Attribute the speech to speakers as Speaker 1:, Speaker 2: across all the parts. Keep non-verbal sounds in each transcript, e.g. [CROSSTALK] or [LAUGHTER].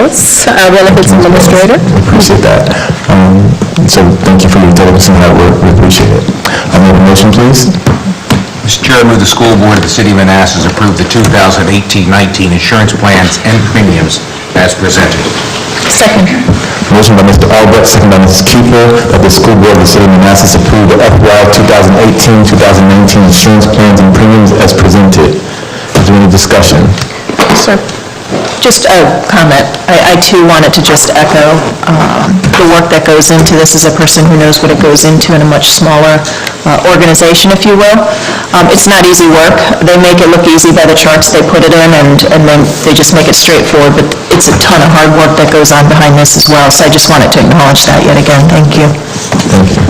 Speaker 1: Schultz, uh, Benefits Administrator.
Speaker 2: Appreciate that. Um, So thank you for your diligence and hard work. We appreciate it. I'll make a motion, please.
Speaker 3: Mr. Chair, I move the school board of the city of Manassas approve the 2018-19 insurance plans and premiums as presented.
Speaker 1: Second.
Speaker 2: Motion by Mr. Albrecht, second by Mrs. Kiefer, that the school board of the city of Manassas approve the FY 2018-2019 insurance plans and premiums as presented. Is there any discussion?
Speaker 1: Sir. Just a comment. I I too wanted to just echo um, the work that goes into this as a person who knows what it goes into in a much smaller uh, organization, if you will. Um, It's not easy work. They make it look easy by the charts they put it in, and and then they just make it straightforward, but it's a ton of hard work that goes on behind this as well, so I just wanted to acknowledge that yet again. Thank you.
Speaker 2: Thank you.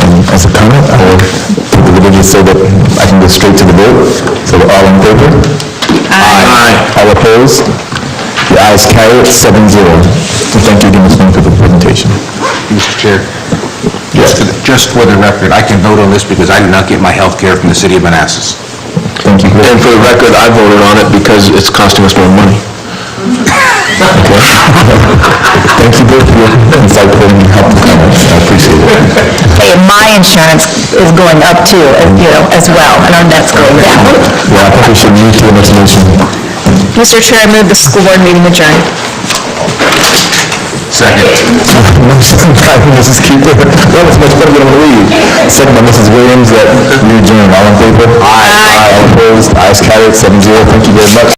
Speaker 2: And As a comment, I will individually say that I can go straight to the vote. So all in favor? Aye. All opposed? The ayes carry it, seven zero. And thank you again, Ms. Moon, for the presentation.
Speaker 3: Mr. Chair,
Speaker 2: Yes.
Speaker 3: just for the- just for the record, I can vote on this because I do not get my health care from the city of Manassas.
Speaker 2: Thank you. And for the record, I voted on it because it's costing us more money. [LAUGHS] Thank you both for your insightful and helpful comments. I appreciate it.
Speaker 1: Hey, my insurance is going up too, you know, as well, and our net's going down.
Speaker 2: Well, I think we should move to the next motion.
Speaker 1: Mr. Chair, I move the school board meeting adjourned.
Speaker 3: Second.
Speaker 2: Motion by [LAUGHS] Mrs. Keeper. That was much better than I believed. Second by Mrs. Williams, that you adjourn. All in favor? Aye. All opposed? Ayes carried, seven zero. Thank you very much.